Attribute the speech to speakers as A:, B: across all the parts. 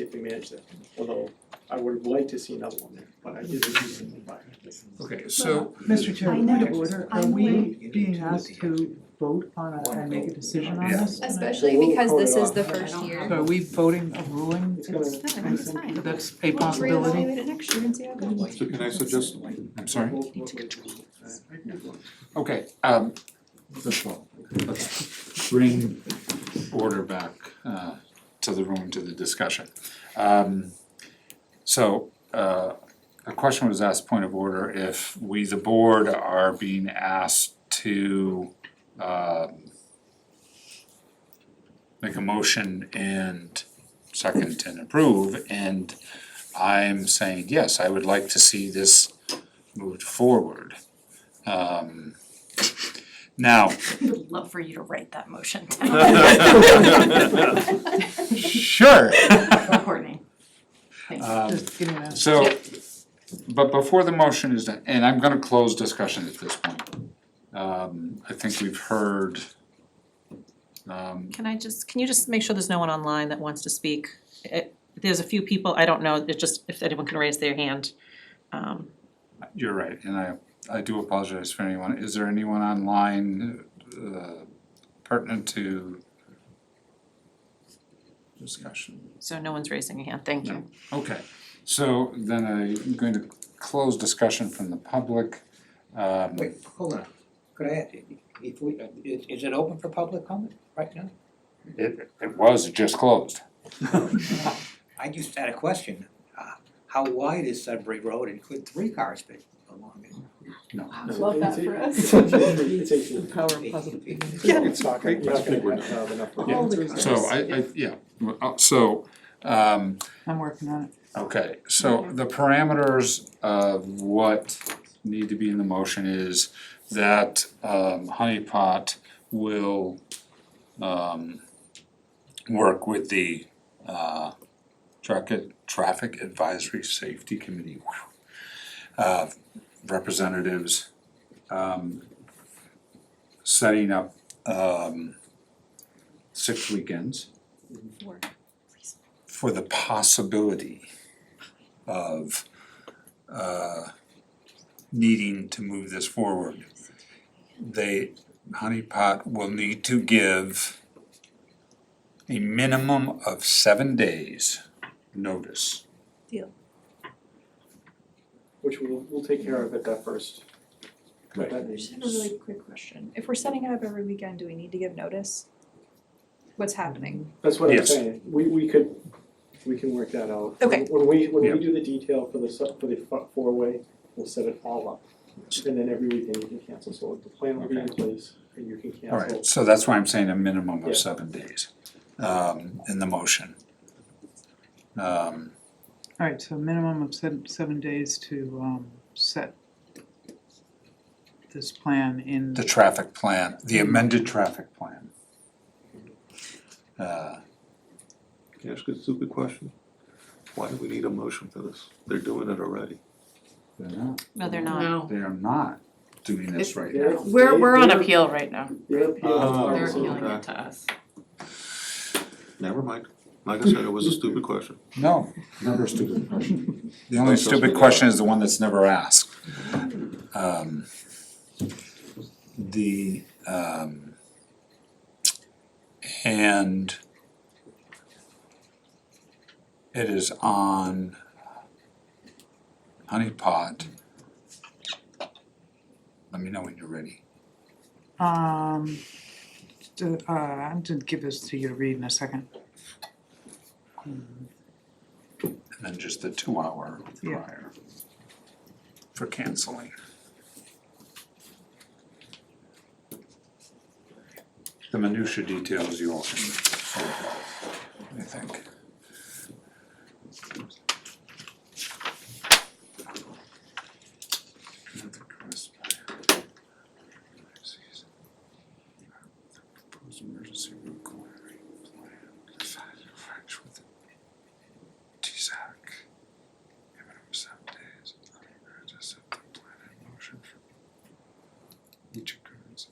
A: if we manage that, although I would have liked to see another one there, but I didn't see it.
B: Okay, so,
C: Mr. Chair,
D: I
C: point
D: know.
C: of order, are
D: I'm
C: we
D: waiting.
C: being asked to vote on a, and make a decision on
B: Yeah.
C: this?
E: Especially
A: Well, we'll
E: because this
A: hold it
E: is the
A: off.
E: first
C: So
E: year.
C: are we voting a ruling?
A: It's gonna,
E: It's fine, it's fine.
C: That's a
E: We'll just
C: possibility?
E: reevaluate it next year and see how it goes.
B: So can I suggest- I'm sorry,
A: we'll, we'll- uh, we'll-
B: okay, um, first of all, let's bring order back uh to the room, to the discussion. Um, so uh a question was asked, point of order, if we, the board, are being asked to um make a motion and second and approve, and I'm saying, yes, I would like to see this moved forward. Um now,
F: Would love for you to write that motion
B: sure.
F: Courtney. Thanks.
B: Um,
C: Just give me that.
B: So, but before the motion is done, and I'm gonna close discussion at this point. Um, I think we've heard, um,
F: Can I just, can you just make sure there's no one online that wants to speak? It- There's a few people, I don't know, it's just if anyone can raise their hand. Um,
B: you're right, and I, I do apologize for anyone. Is there anyone online uh, pertinent to discussion?
F: So no one's raising a hand, thank you.
B: Okay, so then I'm going to close discussion from the public. Um,
G: Wait, hold on, could I, ask, if we, is, is it open for public comment right now?
B: It, it was just closed.
G: I just had a question, uh, how wide is Sudbury Road and could three cars fit along it?
D: Love that for us.
A: It's eighteen, it's eighteen.
C: Power of
G: Eighteen
C: positive
G: feet.
C: thinking.
A: Yeah, it's not gonna, you're
H: I
A: not
H: think we're
A: gonna have enough. room.
C: Yeah.
B: So I, I, yeah, well, uh, so, um,
C: I'm working on it.
B: okay, so the parameters of what need to be in the motion is that, um, Honey Pot will, um, work with the, uh, Traffic, Traffic Advisory Safety Committee, whew, uh, representatives, um, setting up, um, six weekends for the possibility of uh needing to move this forward. They, Honey Pot will need to give a minimum of seven days notice.
A: Which we'll, we'll take care of at that first, at that
D: I
A: meeting.
D: just have a really quick question. If we're setting it up every weekend, do we need to give notice? What's happening?
A: That's what I'm
B: Yes.
A: saying, we, we could, we can work that out.
D: Okay.
A: When we, when
B: Yeah.
A: we do the detail for the, su- for the fu- four-way, we'll set it all up. And then every weekend you can cancel, so the plan will be in place and you can cancel.
B: Alright, so that's why I'm saying a minimum
A: Yeah.
B: of seven days um in the motion. Um
C: All right, so minimum of seven, seven days to, um, set this plan in.
B: the traffic plan, the amended traffic plan. Uh
H: Can I ask a stupid question? Why do we need a motion for this? They're doing it already.
B: They're not,
F: No, they're not.
B: they are not doing this right now.
A: They're- they- they're-
F: right now.
A: They're appealing.
H: Oh,
A: They're appealing.
H: okay.
F: to us.
H: Never mind. Like I said, it was a stupid question.
B: No, never a stupid question. The only
H: Don't trust me.
B: stupid question is the one that's never asked. Um the um and it is on Honey Pot. Let me know when you're ready.
C: Um, d- uh, I'm gonna give this to you to read in a second.
B: and then just the two hour
C: Yeah.
B: prior for canceling. The minutia details you all can sort out, I think. Another cross by- Proposed emergency root clearing plan, decided to fix with TSAC. Given him seven days. Or just set the plan in motion for each occurrence.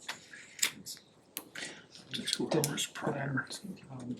B: Up to two hours prior.
C: Um,